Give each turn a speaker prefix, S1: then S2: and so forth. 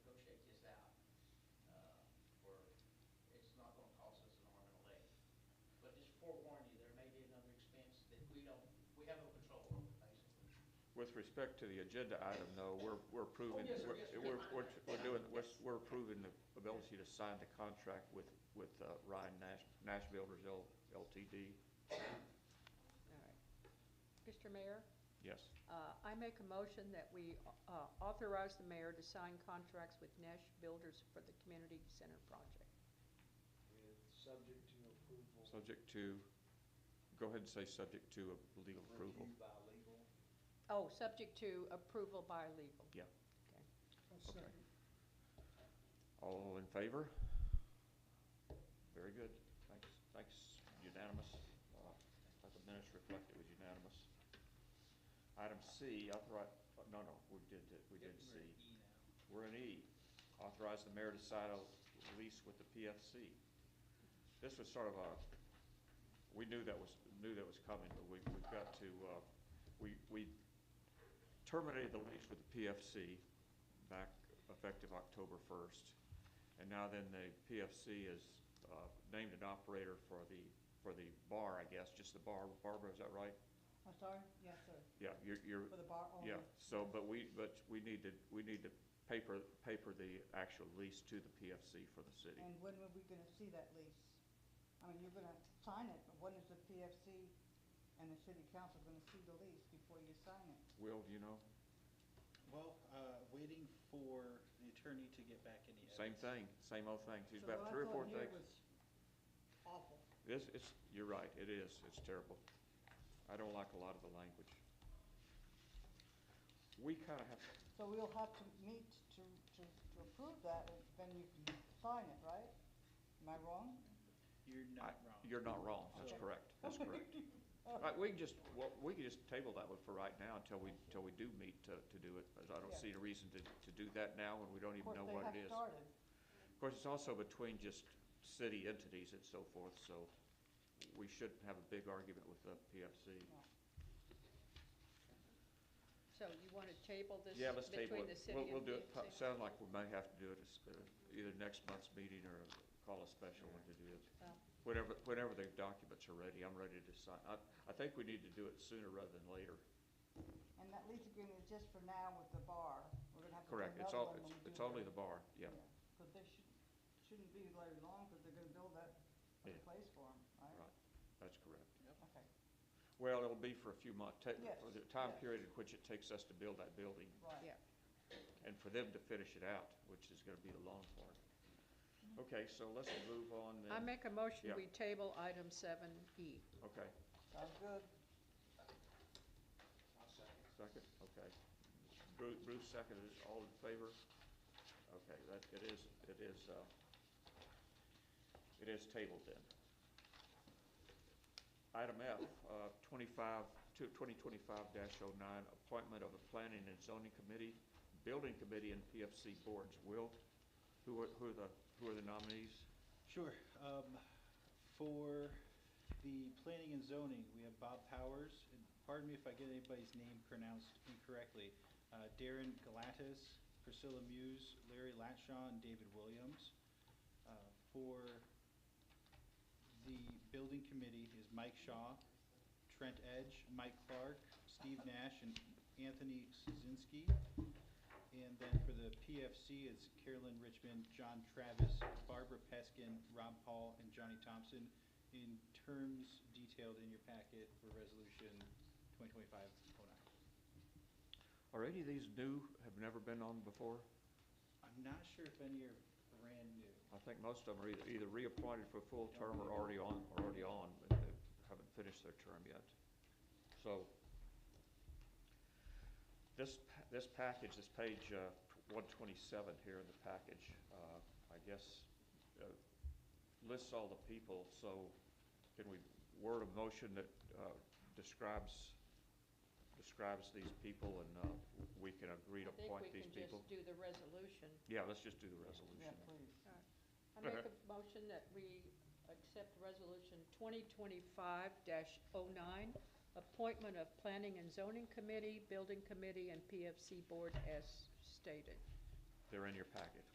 S1: with respect to the agenda item, no, we're, we're approving,
S2: Oh, yes, sir,
S1: we're,
S2: yes, sir.
S1: we're, we're- we're doing, we're, we're approving the ability to sign the contract with, with uh, Ryan Nash, Nash Builders L- LTD.
S3: All right. Mr. Mayor,
S1: Yes.
S3: uh, I make a motion that we uh, authorize the mayor to sign contracts with Nash Builders for the community center project.
S2: With subject to approval.
S1: Subject to, go ahead and say subject to a legal approval.
S2: Review by legal.
S3: Oh, subject to approval by legal.
S1: Okay. All in favor? Very good. Thanks, thanks, unanimous. Uh, Let the minutes reflect it was unanimous. Item C, authorize, uh, no, no, we did, the- we did C. We're in E. Authorize the mayor to sign a lease with the PFC. This was sort of a, we knew that was, knew that was coming, but we, we've got to, uh, we, we terminated the lease with the PFC back effective October first. And now then the PFC is, uh, named an operator for the, for the bar, I guess, just the bar. Barbara, is that right?
S4: I'm sorry, yes, sir,
S1: Yeah, you're, you're,
S4: for the bar only.
S1: yeah, so, but we, but we need to, we need to paper, paper the actual lease to the PFC for the city.
S4: And when were we gonna see that lease? I mean, you're gonna sign it, but when is the PFC and the city council gonna see the lease before you sign it?
S1: Will, do you know?
S5: Well, uh, waiting for the attorney to get back any evidence.
S1: Same thing, same old thing. She's about three or four things.
S4: Awful.
S1: This, it's, you're right, it is, it's terrible. I don't like a lot of the language. We kinda have,
S4: So we'll have to meet to, to, to approve that, and then you can sign it, right? Am I wrong?
S5: You're not wrong.
S1: you're not wrong, that's
S4: Okay.
S1: correct, that's correct. Right, we can just, well, we can just table that one for right now until we, until we do meet to, to do it. But I don't
S4: Yeah.
S1: see a reason to, to do that now when we don't even know what it is.
S4: Of course, they have started.
S1: Of course, it's also between just city entities and so forth, so we shouldn't have a big argument with the PFC.
S3: So you want to table this
S1: Yeah, let's table
S3: between the
S1: it.
S3: city
S1: We'll, we'll
S3: and
S1: do it, po-
S3: PFC?
S1: sound like we may have to do it as, uh, either next month's meeting or call a special one to do it.
S3: Well-
S1: Whenever, whenever the documents are ready, I'm ready to sign. I, I think we need to do it sooner rather than later.
S4: And that lease agreement is just for now with the bar. We're gonna have to do
S1: Correct, it's
S4: another
S1: all,
S4: one
S1: it's,
S4: when we
S1: it's
S4: do
S1: only
S4: the-
S1: the bar, yeah.
S4: But they shouldn't, shouldn't be very long, because they're gonna build that
S1: Yeah.
S4: place for them, right?
S1: Right. That's correct.
S4: Okay,
S1: Well, it'll be for a few months, ta-
S4: Yes,
S1: for the time
S4: yes.
S1: period in which it takes us to build that building.
S4: right.
S3: Yeah.
S1: and for them to finish it out, which is gonna be the long part. Okay, so let's move on
S3: I
S1: then.
S3: make a motion,
S1: Yeah.
S3: we table item seven E.
S1: Okay,
S4: Sounds good.
S1: second, okay. Bruce, Bruce seconded, it. all in favor? Okay, that, it is, it is, uh, it is tabled then. Item F, uh, twenty-five, two, twenty twenty-five dash oh nine, appointment of a planning and zoning committee, building committee and PFC boards. Will, who are, who are the, who are the nominees?
S5: Sure. um, For the planning and zoning, we have Bob Powers, and pardon me if I get anybody's name pronounced incorrectly, uh, Darren Galatis, Priscilla Muse, Larry Latshaw, and David Williams. Uh, For the building committee is Mike Shaw, Trent Edge, Mike Clark, Steve Nash, and Anthony Szynski. And then for the PFC, it's Carolyn Richmond, John Travis, Barbara Peskin, Rob Paul, and Johnny Thompson in terms detailed in your packet for resolution 2025-09.
S1: Are any of these new, have never been on before?
S5: I'm not sure if any are brand new.
S1: I think most of them are either, either reappointed for full term or already on, or already on, but they haven't finished their term yet. So, this, pa- this package, this page, uh, one twenty-seven here in the package, uh, I guess, uh, lists all the people, so can we word a motion that, uh, describes, describes these people and, uh, we can agree to
S3: I think we
S1: appoint these
S3: can
S1: people?
S3: just do the resolution.
S1: Yeah, let's just do the
S4: Yeah,
S1: resolution.
S4: please.
S3: I make a motion that we accept resolution twenty twenty-five 9 appointment of planning and zoning committee, building committee, and PFC board as stated.
S1: They're in your packet.